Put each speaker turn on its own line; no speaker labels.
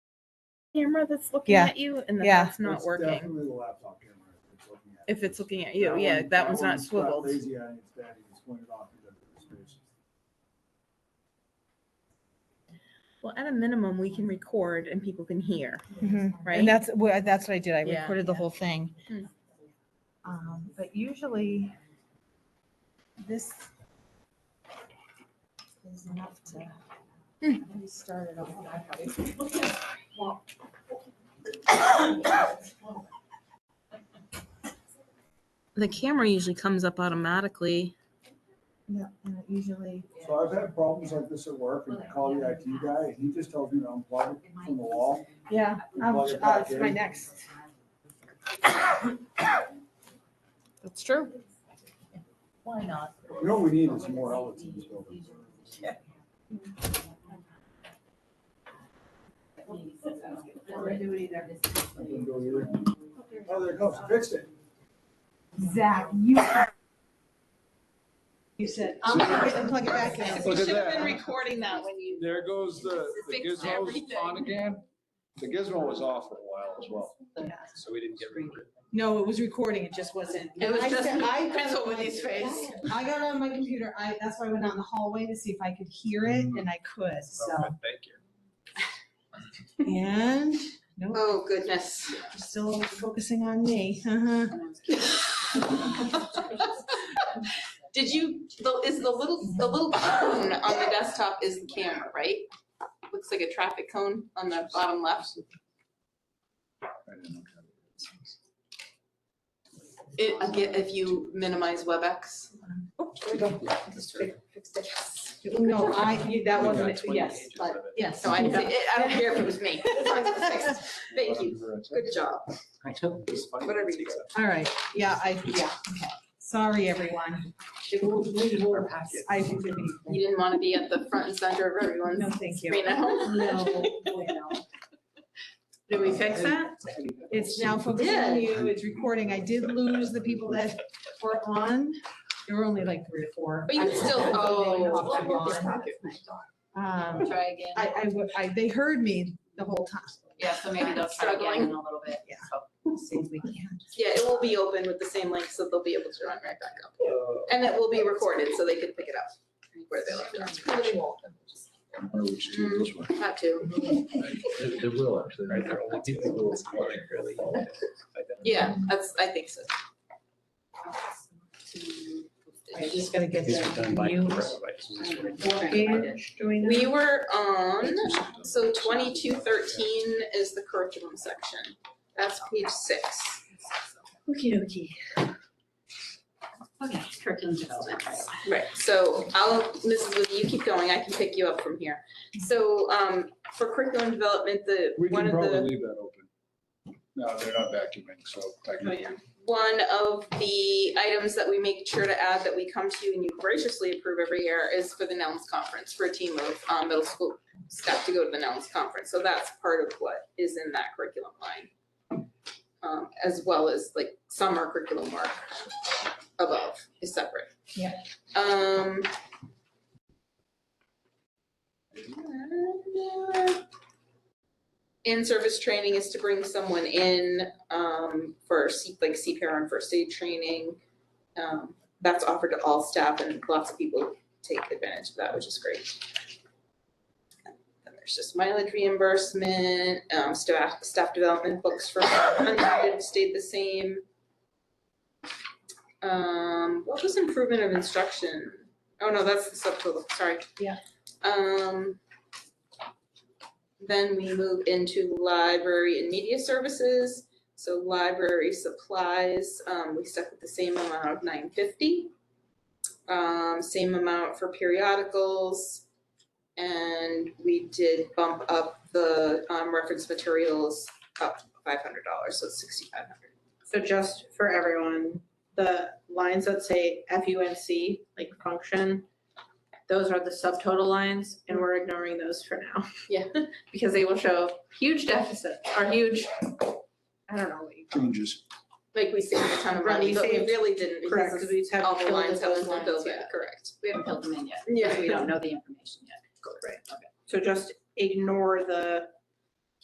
camera that's looking
Yeah.
at you and that
Yeah.
that's not
It's
working.
Definitely the laptop camera. if it's looking at
If
you.
it's looking at you,
That
yeah,
one-
that one's not
got
swiveled.
Lazy eye, it's bad, it's pointed off into the space.
Well, at a minimum, we can record and people can hear,
Mhm.
right?
And that's, wha- that's what I did. I
Yeah.
recorded the whole thing.
Hmm.
Um, But usually this is enough to let me start it off.
The camera usually comes up automatically.
Yeah, and it Usually,
So I've had problems like this at work and I call the IT guy and he just tells me to unplug it from the wall.
yeah, uh,
um, Plug it back
it's my
in.
next.
That's true.
Why not?
You know, what we need is more outlets in this building. I can go here. Oh, there it goes, fixed it.
Zach, you. You said, I'm gonna plug it back in.
Look at that.
recording that when you.
There goes the, the
Fixed
gizmo's
everything.
on again. The gizmo was off for a while as well, so we didn't get rid of it.
No, it was recording, it just wasn't.
It was
I
just
said- I got
Prince
on my-
William's face.
I got on my computer, I, that's why I went down the hallway to see if I could hear it, and I could, so,
Okay, Thank you.
and, no,
Oh, goodness.
you're still focusing on me, uh-huh.
Did you, the- is the little, the little cone on the desktop is the camera, right? Looks like a traffic cone on the bottom left.
I didn't look at it.
It, I get if you minimize WebEx.
No, I, that
We got
wasn't, it.
20
yes,
pages
but,
of it.
yes.
So I, didn't see- I don't care if it was me. As long as it's fixed. Thank you. Good job.
I know, it's funny.
Whatever you do.
All right, yeah, I, yeah, okay, sorry, everyone. It will, we will pass. I think we need-
You didn't want to be at the front and center of
No,
everyone's
thank you.
screen at home.
No, well.
Did we fix that?
It's now focused on
did.
you, it's recording. I did lose the people that were on. There were only like three or four.
But you can still-
I-
oh.
I'm on. Um,
Try again.
I, I, wa- I, they heard me the whole time.
Yeah, so maybe they'll try again in a little bit.
Yeah.
So
See if we can.
Yeah, it will be open with the same link, so they'll be able to run right back up.
Uh,
And it will be recorded, so they can pick it up where they left it. Mm,
Or we should do this one.
Have to.
There there will actually.
Right, there are only two people that's calling really.
Yeah, that's, I think so.
I'm just gonna get
These were done by.
the mute. Doing
We were on, so twenty-two thirteen is the curriculum section. That's page six.
Okey dokey. Okay, curriculum development.
Right, so I'll, Mrs. Woody, you keep going, I can pick you up from here. So, um, for curriculum development, the,
We
one
can
of
probably
the,
leave that open. No, they're not vacuuming, so. I can-
Oh, yeah. one of the items that we make sure to add that we come to you and you graciously approve every year is for the Nellens Conference, for a team of, um, middle school staff to go to the Nellens Conference. So that's part of what is in that curriculum line. Um, as well as like summer curriculum work above is separate.
Yeah.
Um. In-service training is to bring someone in, um, for C, like CPR and first aid training. Um, that's offered to all staff and lots of people take advantage of that, which is great. Then there's just mileage reimbursement, um, staff, staff development books for unrated stayed the same. Um, what was improvement of instruction? Oh, no, that's the subtotal, sorry.
Yeah.
Um. Then we move into library and media services. So library supplies, um, we stuck with the same amount of nine fifty. Um, same amount for periodicals. And we did bump up the, um, reference materials up five hundred dollars, so it's sixty-five hundred.
So just for everyone, the lines that say FUNC, like function, those are the subtotal lines and we're ignoring those for now.
Yeah.
Because they will show huge deficit or huge, I don't know what you call it.
Changes.
Like we saved a ton of
Right,
money,
we
but we
saved-
really didn't
Correct,
because
because we have
all the lines
filled
that was
those
one
lines
build
yet.
correct.
We haven't filled them in yet.
Yeah.
We don't know the information yet.
So just ignore the